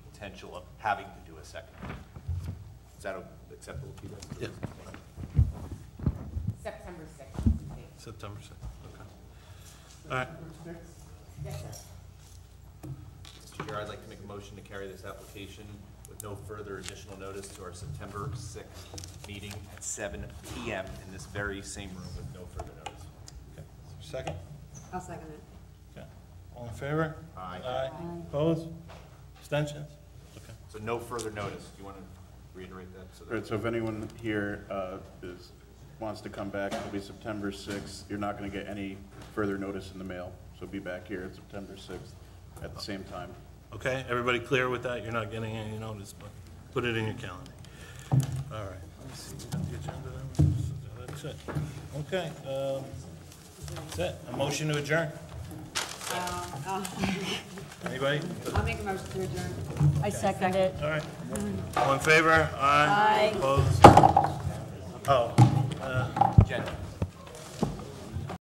potential of having to do a second. Is that acceptable to you guys? Yeah. September sixth, I think. September 6th, okay. All right, Yes, sir. Mr. Chair, I'd like to make a motion to carry this application with no further additional notice to our September 6th meeting at 7 PM in this very same room with no further notice. okay. Second? I'll second it. Okay. All in favor? Aye. Opposed? Abstentions? Okay. So no further notice. Do you want to reiterate that? so that- All right, so if anyone here uh, is, wants to come back, it'll be September 6th. You're not going to get any further notice in the mail, so be back here at September 6th at the same time. Okay, everybody clear with that? You're not getting any notice, but put it in your calendar. All right. Let me see, we got the agenda there. That's it. Okay, um, that's it. A motion to adjourn? Anybody? Um, uh, I'll make a motion to adjourn. I second it. All right. All in favor? Aye. Opposed? Oh.